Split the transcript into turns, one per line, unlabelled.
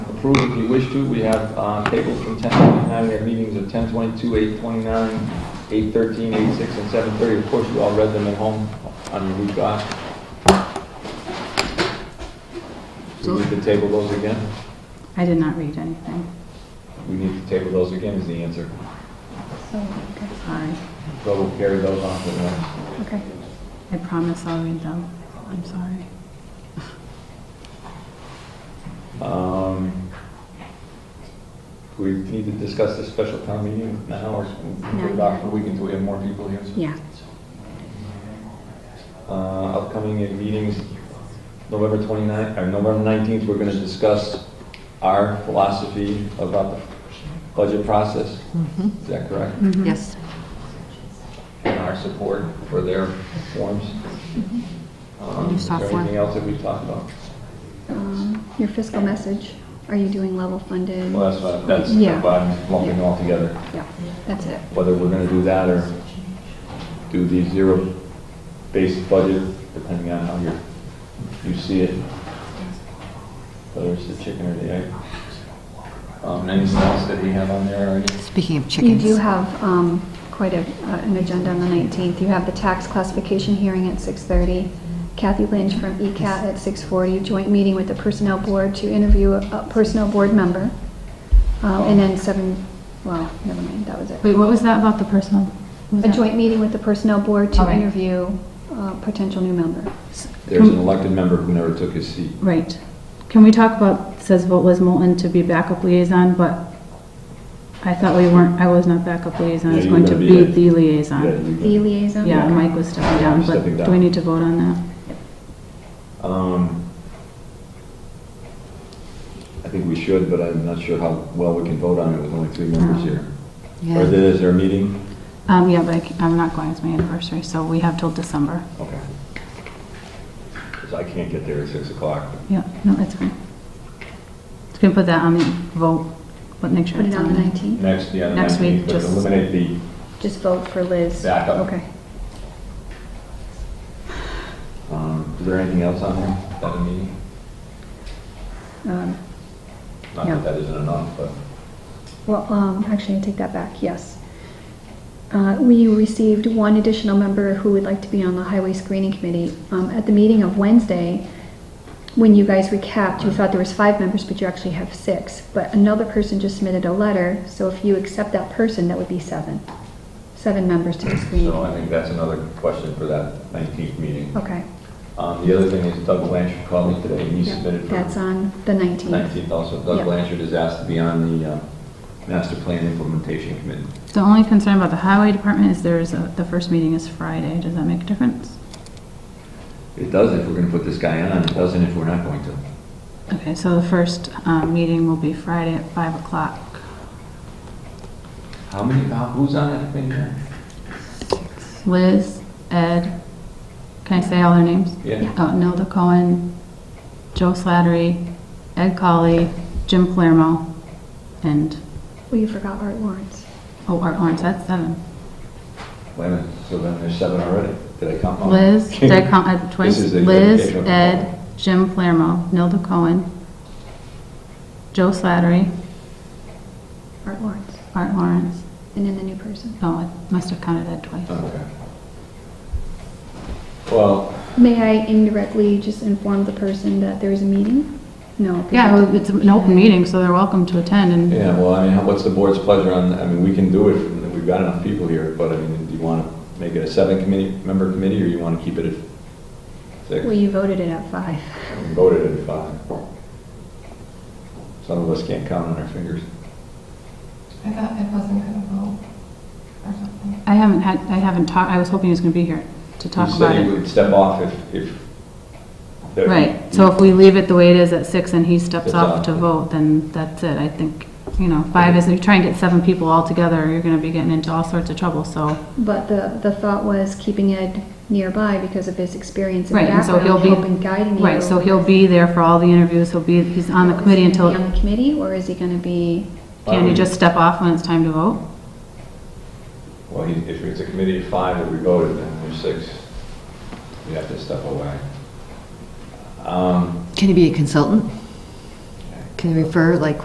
approve if you wish to. We have uh, tables from 10:29, we have meetings of 10:22, 8:29, 8:13, 8:06, and 7:30. Of course, you all read them at home on your week off. Do we need to table those again?
I did not read anything.
We need to table those again is the answer.
So, sorry.
So we'll carry those on to the next.
Okay. I promise I'll read them. I'm sorry.
Um, Do we need to discuss this special town meeting now or can we put it off for a week until we have more people here?
Yeah.
Uh, Upcoming meetings, November 29th, or November 19th, we're going to discuss our philosophy about the budget process. Is that correct?
Mm-hmm.
Yes.
And our support for their forms. Um,
New
Is there
software.
anything else that we talked about?
Um, Your fiscal message, are you doing level funded?
Well, that's, what- that's
Yeah.
what I'm lumping all together.
Yeah, that's it.
whether we're gonna do that or do the zero-based budget, depending on how you, you see it. Whether it's the chicken or the egg. Um, anything else that we have on there already?
Speaking of
You
chickens.
do have um, quite a- uh, an agenda on the 19th. You have the tax classification hearing at 6:30, Kathy Lynch from E ECAT at 6:40, joint meeting with the Personnel Board to interview a Personnel Board member, Uh, and then 7, well, never mind, that was it.
Wait, what was that about the personal?
A joint meeting with the Personnel Board to
Okay.
interview a potential new member.
There's an elected member who never took his seat.
Right. Can we talk about, it says vote Liz Moulton to be backup liaison, but I thought we weren't, I was not backup liaison, I was
Yeah,
going
you're
to
gonna
be
be
the
Yeah,
liaison.
you
The
can-
liaison?
Yeah, Mike was stepping down, but
Stepping down.
do we need to vote on that?
Um, I think we should, but I'm not sure how well we can vote on it with only three members here. Or
Yeah.
is there a meeting?
Um, yeah, but I c- I'm not going, it's my anniversary, so we have till December.
Okay. Because I can't get there at 6 o'clock.
Yeah, no, that's fine. Just gonna put that on the vote, but make sure
Put
it's
it on the 19th?
Next, yeah, the
Next week,
19th, but
just-
eliminate the
Just vote for Liz.
backup.
Okay.
Um, Is there anything else on there that a meeting?
Um,
Not
No.
that that isn't enough, but
Well, um, actually, I take that back, yes. Uh, We received one additional member who would like to be on the Highway Screening Committee. Um, At the meeting of Wednesday, when you guys recapped, you thought there was five members, but you actually have six. But another person just submitted a letter, so if you accept that person, that would be seven. Seven members to the screening.
so uh, I think that's another question for that 19th meeting.
Okay,
Um, The other thing is Doug Blanchard called me today, and he
Yeah,
submitted for
that's on the 19th.
19th also.
Yeah.
Doug Blanchard is asked to be on the uh, master plan implementation committee.
The only concern about the highway department is there's, a- the first meeting is Friday, does that make a difference?
It does if we're going to put this guy on, it doesn't if we're not going to.
Okay, so the first um, meeting will be Friday at 5 o'clock.
How many, how- who's on that committee?
Liz, Ed, can I say all their names?
Yeah.
Oh, Nelda Cohen, Joe Slattery, Ed Colley, Jim Palermo, and,
Well, you forgot Art Lawrence.
oh, Art Lawrence, that's seven.
Wait a minute, so then there's seven already. Did I count wrong?
Liz, did I count Ed twice?
is a
Liz,
dedication.
Ed, Jim Palermo, Nelda Cohen, Joe Slattery,
Art Lawrence.
Art Lawrence.
And then the new person.
Oh, I must have counted Ed twice.
Okay. Well,
May I indirectly just inform the person that there is a meeting? No. they
Yeah,
have to-
well, it's an open meeting, so they're welcome to attend, and
yeah, well, I mean, how- what's the board's pleasure on, I mean, we can do it, and we've got enough people here, but I mean, do you want to make it a seven committee, member committee, or you want to keep it at six?
Well,
We
you voted it at five.
Voted at five. Some of us can't count on our fingers.
I thought I wasn't gonna vote or something.
I haven't had, I haven't talked, I was hoping he was gonna be here to talk
You
about
said you
it.
would step off if, if. that-
Right, so if we leave it the way it is at six and he
Steps
steps off to
off.
vote, then that's it, I think, you know, five is, if you try and get seven people all together, you're gonna be getting into all sorts of trouble, so.
But the, the thought was keeping Ed nearby because of his experience and
Right, and so
background,
he'll be.
helping guiding you.
Right, so he'll be there for all the interviews, he'll be, he's on the committee
Is he gonna be
until,
on the committee, or is he gonna be,
can you just step off when it's time to vote?
Well, he- if it's a committee of five that we voted, then there's six. You have to step away. Um,
Can he be a consultant? Can you refer, like,